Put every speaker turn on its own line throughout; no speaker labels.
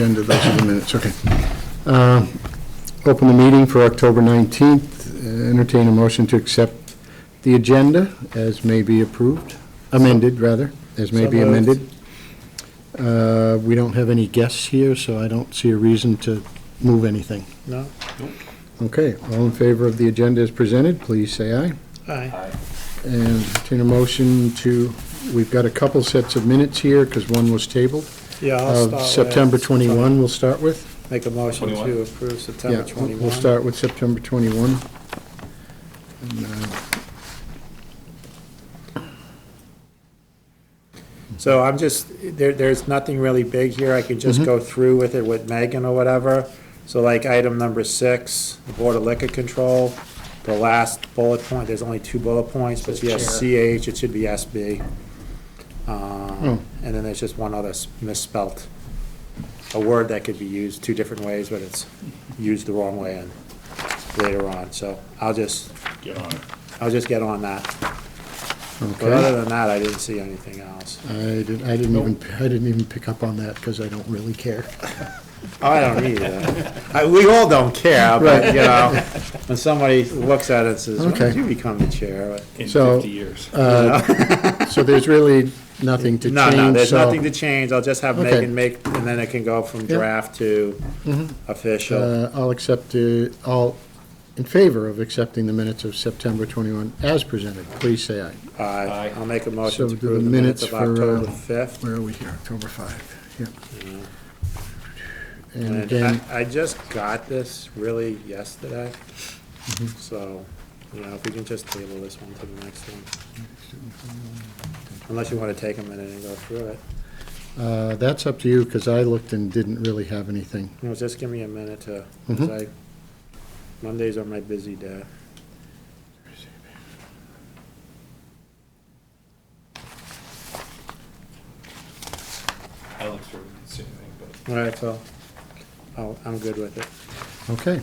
Agenda, those are the minutes, okay. Uh, Open the meeting for October 19th. Entertain a motion to accept the agenda as may be approved, amended, rather, as may
So
be
moved.
amended. Uh, We don't have any guests here, so I don't see a reason to move anything.
No?
Okay, all in favor of the agenda as presented, please say aye.
Aye.
And entertain a motion to, we've got a couple sets of minutes here, because one was tabled.
Yeah, I'll start
Of
with-
September 21, we'll start with.
Make a motion
21.
to approve September
Yeah,
21.
we'll- we'll start with September 21. And, uh,
So I'm just, there, there's nothing really big here, I could just
Mhm.
go through with it with Megan or whatever. So like item number six, the Board of Liquor Control, the last bullet point, there's only two bullet points, but yes, CH, it should be SB.
Oh.
Um, And then there's just one other s- misspelt, a word that could be used two different ways, but it's used the wrong way and later on, so I'll just,
Get on it.
I'll just get on that. But
Oh, Okay,
other than that, I didn't see anything else.
I didn't, I didn't even, I didn't even pick up on that, because I don't really care.
Oh, I don't either. I, we all don't care, but, you know, when somebody looks at it and says, when
Okay.
did you become the chair?
In
So, uh,
50 years.
So there's really nothing to change,
No, no, there's
so-
nothing to change. I'll just have
Okay.
Megan make, and then it can go from
Yeah. Mm-hmm.
draft to official.
Uh, I'll accept, uh, all in favor of accepting the minutes of September 21 as presented, please say aye.
Aye. I'll make a
Uh, So
motion to
do the
approve the minutes of
minutes for, uh,
October fifth.
Where are we here, October 5, yeah. And
Mm-hmm. And
again,
I, I just got this really yesterday, so, you know, if we can just table this one to the next one. Unless you wanna take a minute and go through it.
uh, that's up to you, because I looked and didn't really have anything.
You know, just give me a minute to, 'cause I, Mondays are my busy day.
I looked through and didn't see anything, but
All right, so, I'll, I'm good with it.
Okay.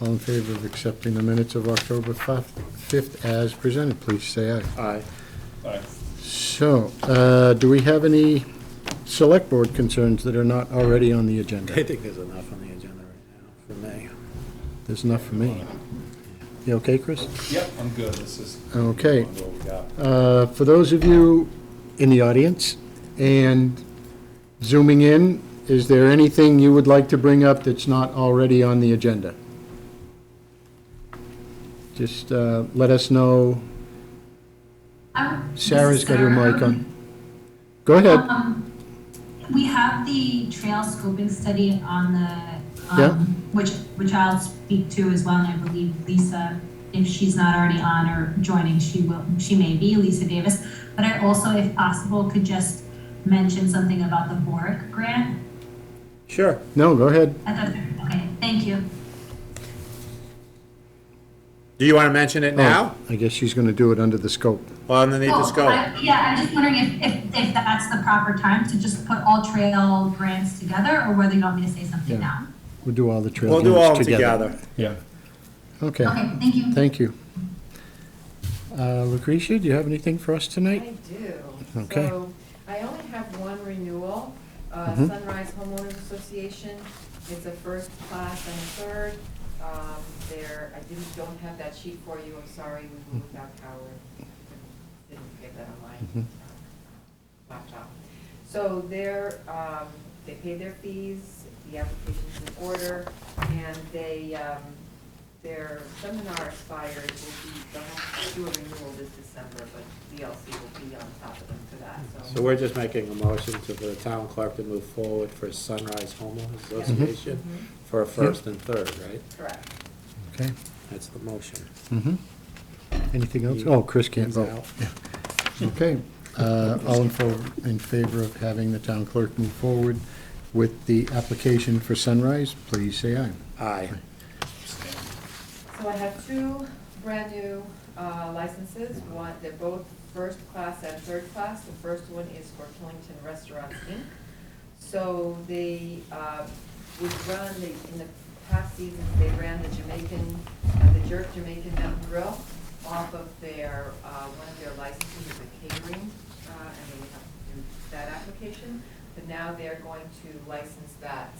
All in favor of accepting the minutes of October 5th as presented, please say aye.
Aye.
I
So, uh, do we have any Select Board concerns that are not already on the
I
agenda?
think there's enough on the agenda right now for me.
There's enough for me. You okay, Chris?
Yep, I'm good. This is.
Okay.
What we got.
Uh, For those of you in the audience and zooming in, is there anything you would like to bring up that's not already on the agenda? Just uh, let us know. Sarah's got her mic on. Go ahead.
Um, We have the trail scoping study on the,
Yeah.
um, which, which I'll speak to as well, and I believe Lisa, if she's not already on or joining, she will, she may be, Lisa Davis. But I also, if possible, could just mention something about the VORIC grant.
Sure.
No, go ahead.
I thought, okay, thank you.
Do you wanna mention it now,
Oh, I guess she's going to do it under the scope.
or underneath the
Oh,
scope?
I- Yeah, I'm just wondering if, if, if that's the proper time to just put all trail grants together, or whether you want me to say
Yeah.
something now.
We'll do all the trail
We'll do
cameras
all of them together.
Yeah.
Okay,
Okay, thank you.
thank you. Uh, Lucretia, do you have anything for us tonight?
I do.
Okay.
So I only have one renewal, uh,
Mhm.
Sunrise Homeowners Association. It's a first class and a third. Um, There, I didn't, don't have that sheet for you, I'm sorry, we moved out Howard. Didn't get that on my laptop. So they're, um, they pay their fees, the application's in order, and they, um, their seminar expired, will be, they'll do a renewal this December, but DLC will be on top of them for that,
So we're just making a motion to, for the town clerk to move forward for Sunrise Homeowners Association for a first and third, right?
Correct.
Okay.
That's the motion.
Mhm. Anything else? Oh, Chris can't
He's
vote.
out.
Okay. Uh, All in favor, in favor of having the town clerk move forward with the application for Sunrise, please say aye.
Aye.
So I have two brand-new uh, licenses, one, they're both first class and third class. The first one is for Killington Restaurants Inc. So they uh, would run, they- in the past seasons, they ran the Jamaican, uh, the Jerk Jamaican Mountain Grill off of their, uh, one of their licenses is a catering, uh, and they have to do that application. but now they're going to license that